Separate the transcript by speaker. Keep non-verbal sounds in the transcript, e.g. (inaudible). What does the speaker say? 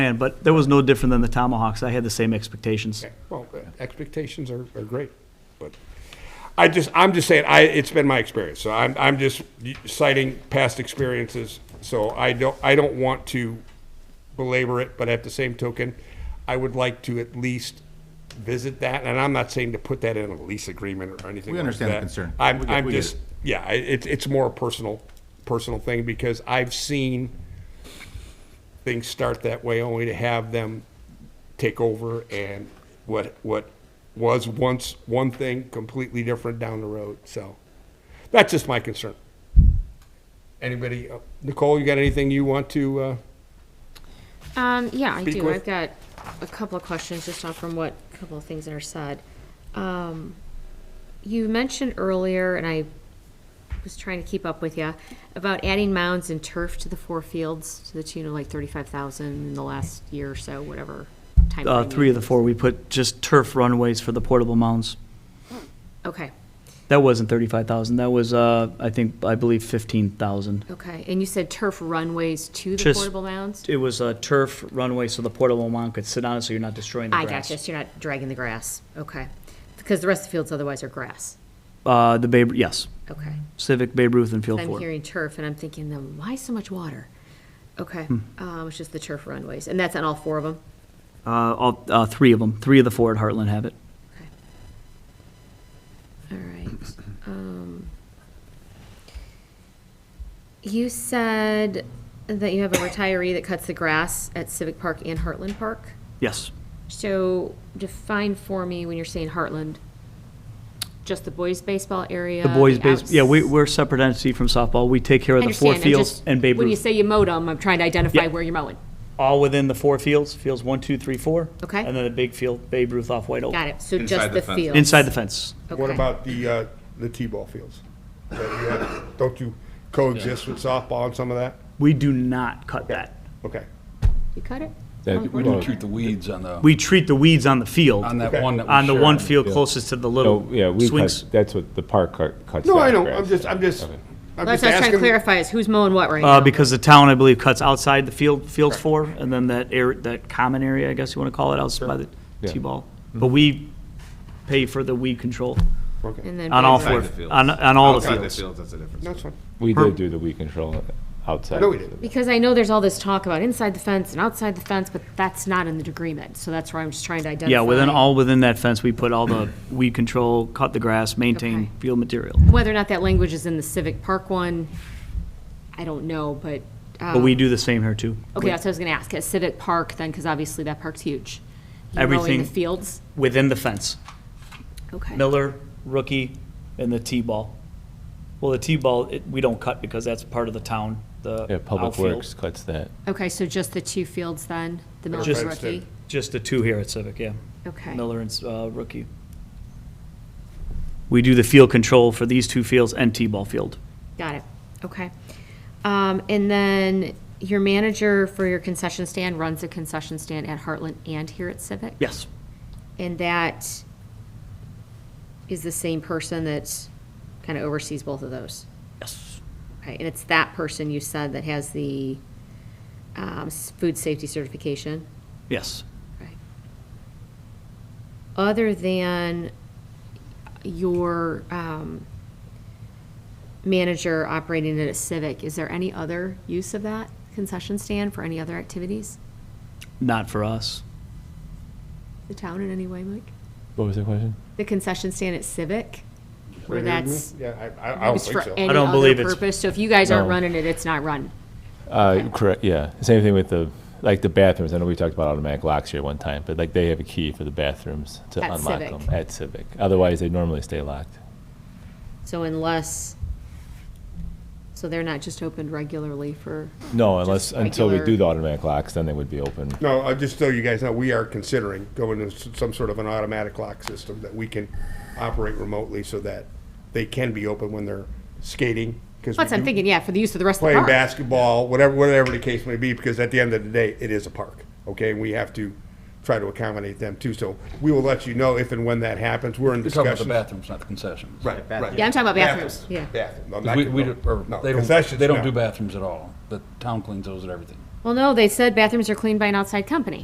Speaker 1: plan, but that was no different than the Tomahawks. I had the same expectations.
Speaker 2: Okay, Well, uh, expectations are, are great, but I just, I'm just saying, I, it's been my experience, so I'm, I'm just citing past experiences. So I don't, I don't want to belabor it, but at the same token, I would like to at least visit that, and I'm not saying to put that in a lease agreement or anything
Speaker 3: We
Speaker 2: like
Speaker 3: understand the
Speaker 2: that.
Speaker 3: concern. We
Speaker 2: I'm,
Speaker 3: get-
Speaker 2: I'm
Speaker 3: we get
Speaker 2: just,
Speaker 3: it.
Speaker 2: yeah, I- it's, it's more a personal, personal thing, because I've seen things start that way only to have them take over and what what was once one thing completely different down the road. So that's just my concern. Anybody, uh, Nicole, you got anything you want to? Uh,
Speaker 4: Um, yeah, I
Speaker 2: Speak
Speaker 4: do.
Speaker 2: with-
Speaker 4: I've got a couple of questions just off from what, a couple of things that are said. Um, you mentioned earlier, and I was trying to keep up with you, about adding mounds and turf to the four fields to the tune of like thirty-five thousand in the last year or so, whatever time.
Speaker 1: Uh, three of the four, we put just turf runways for the portable mounds.
Speaker 4: Okay,
Speaker 1: That wasn't thirty-five thousand. That was, uh, I think, I believe fifteen thousand.
Speaker 4: okay. And you said turf runways to the
Speaker 1: Just-
Speaker 4: portable mounds?
Speaker 1: It was a turf runway so the portable mound could sit on it so you're not destroying the
Speaker 4: I
Speaker 1: grass.
Speaker 4: gotcha. So you're not dragging the grass. Okay. Because the rest of the fields otherwise are grass.
Speaker 1: Uh, the Babe, yes,
Speaker 4: Okay.
Speaker 1: Civic, Babe Ruth and Field
Speaker 4: I'm
Speaker 1: Four.
Speaker 4: hearing turf, and I'm thinking, then why so much water? Okay,
Speaker 1: Hmm.
Speaker 4: um, it's just the turf runways, and that's on all four of them?
Speaker 1: Uh, all, uh, three of them, three of the four at Heartland have it. (clears throat)
Speaker 4: All right. Um, You said that you have a retiree that cuts the grass at Civic Park and Heartland Park.
Speaker 1: Yes.
Speaker 4: So define for me when you're saying Heartland, just the boys' baseball area?
Speaker 1: The boys' base,
Speaker 4: outs-
Speaker 1: yeah, we, we're a separate entity from softball. We take care of
Speaker 4: I
Speaker 1: the four
Speaker 4: understand, I'm
Speaker 1: fields
Speaker 4: just-
Speaker 1: and Babe
Speaker 4: When you
Speaker 1: Ruth.
Speaker 4: say you mowed them, I'm trying to identify
Speaker 1: Yeah.
Speaker 4: where you're mowing.
Speaker 1: All within the four fields, fields one, two, three, four.
Speaker 4: Okay.
Speaker 1: And then the big field, Babe Ruth off White Oak.
Speaker 4: Got it, Oh. so
Speaker 3: Inside
Speaker 4: just
Speaker 3: the
Speaker 4: the
Speaker 3: fence.
Speaker 4: field.
Speaker 1: Inside the fence.
Speaker 5: What
Speaker 4: Okay.
Speaker 5: about the, uh, the T-ball fields? That you have- Don't you coexist with softball and some of that?
Speaker 1: We do not cut that.
Speaker 5: Okay.
Speaker 4: You cut it?
Speaker 6: That we don't treat the weeds on the,
Speaker 1: We treat the weeds on the field.
Speaker 6: on that one that we
Speaker 1: on the
Speaker 6: share
Speaker 1: one field closest to the little
Speaker 7: So, Oh, yeah, we
Speaker 1: swings.
Speaker 7: cut, that's what the park cut- cuts.
Speaker 5: No,
Speaker 7: down
Speaker 5: I know,
Speaker 7: grass.
Speaker 5: I'm just, I'm just, I'm
Speaker 4: That's
Speaker 5: just
Speaker 4: what I was trying to
Speaker 5: asking.
Speaker 4: clarify, is who's mowing what right now?
Speaker 1: Uh, because the town, I believe, cuts outside the field, fields four, and then that air, that common area, I guess you want to call it, outside by the
Speaker 7: Yeah.
Speaker 1: T-ball. But we pay for the weed control
Speaker 4: And then
Speaker 1: on all
Speaker 4: Babe
Speaker 1: four,
Speaker 4: Ruth.
Speaker 3: fields.
Speaker 1: on, on all the
Speaker 3: Outside the
Speaker 1: fields.
Speaker 3: fields, that's a difference.
Speaker 5: That's fine.
Speaker 7: We did do the weed control outside.
Speaker 5: know we did.
Speaker 4: Because I know there's all this talk about inside the fence and outside the fence, but that's not in the agreement, so that's where I'm just trying to identify.
Speaker 1: Yeah, within, all within that fence, we put all the weed control, cut the grass, maintain
Speaker 4: Okay.
Speaker 1: field material.
Speaker 4: Whether or not that language is in the Civic Park one, I don't know, but,
Speaker 1: But we do the same here too.
Speaker 4: Um, okay, that's what I was gonna ask, at Civic Park then, because obviously that park's huge. You're Mowing
Speaker 1: Everything-
Speaker 4: the fields,
Speaker 1: Within the fence.
Speaker 4: okay.
Speaker 1: Miller, rookie, and the T-ball. Well, the T-ball, it, we don't cut because that's part of the town, the
Speaker 7: Yeah, Public
Speaker 1: outfield.
Speaker 7: Works cuts that.
Speaker 4: Okay, so just the two fields then, the Miller
Speaker 1: Just-
Speaker 4: Rookie,
Speaker 1: Just the two here at Civic, yeah.
Speaker 4: okay.
Speaker 1: Miller and uh, rookie. We do the field control for these two fields and T-ball field.
Speaker 4: Got it, okay. Um, and then your manager for your concession stand runs a concession stand at Heartland and here at Civic?
Speaker 1: Yes.
Speaker 4: And that is the same person that kind of oversees both of those?
Speaker 1: Yes.
Speaker 4: Okay, and it's that person you said that has the, um, s- food safety certification?
Speaker 1: Yes.
Speaker 4: Right. Other than your um, manager operating it at Civic, is there any other use of that concession stand for any other activities?
Speaker 1: Not for us.
Speaker 4: The town in any way, Mike?
Speaker 7: What was the question?
Speaker 4: The concession stand at Civic? Where that's,
Speaker 5: Yeah, I- I, I don't
Speaker 4: it's
Speaker 5: think
Speaker 4: for
Speaker 5: so.
Speaker 4: any
Speaker 1: don't believe
Speaker 4: other
Speaker 1: it's-
Speaker 4: purpose? So if you guys aren't
Speaker 7: No.
Speaker 4: running it, it's not run?
Speaker 7: Uh, correct, yeah. Same thing with the, like the bathrooms. I know we talked about automatic locks here one time, but like they have a key for the bathrooms to
Speaker 4: At
Speaker 7: unlock
Speaker 4: Civic.
Speaker 7: them at Civic. Otherwise, they normally stay locked.
Speaker 4: So unless, so they're not just opened regularly for,
Speaker 7: No, unless, until we
Speaker 4: regular-
Speaker 7: do the automatic locks, then they would be open.
Speaker 5: No, I just so you guys know, we are considering going to s- some sort of an automatic lock system that we can operate remotely so that they can be open when they're skating. Because
Speaker 4: plus
Speaker 1: Mm-hmm.
Speaker 4: I'm thinking, yeah, for the use of the rest of the
Speaker 5: playing
Speaker 4: park.
Speaker 5: basketball, whatever, whatever the case may be, because at the end of the day, it is a park, okay? And we have to try to accommodate them too, so we will let you know if and when that happens, we're in
Speaker 6: we're talking about the
Speaker 5: discussion.
Speaker 6: bathrooms, not the concessions.
Speaker 5: Right, right.
Speaker 4: Yeah, I'm talking about bathrooms, yeah.
Speaker 5: Bathroom, no, not
Speaker 6: Because we- we
Speaker 5: con-
Speaker 6: don't- or
Speaker 5: no,
Speaker 6: They don't,
Speaker 5: concessions,
Speaker 6: they don't
Speaker 5: no.
Speaker 6: do bathrooms at all. The town cleans those and everything.
Speaker 4: Well, no, they said bathrooms are cleaned by an outside company.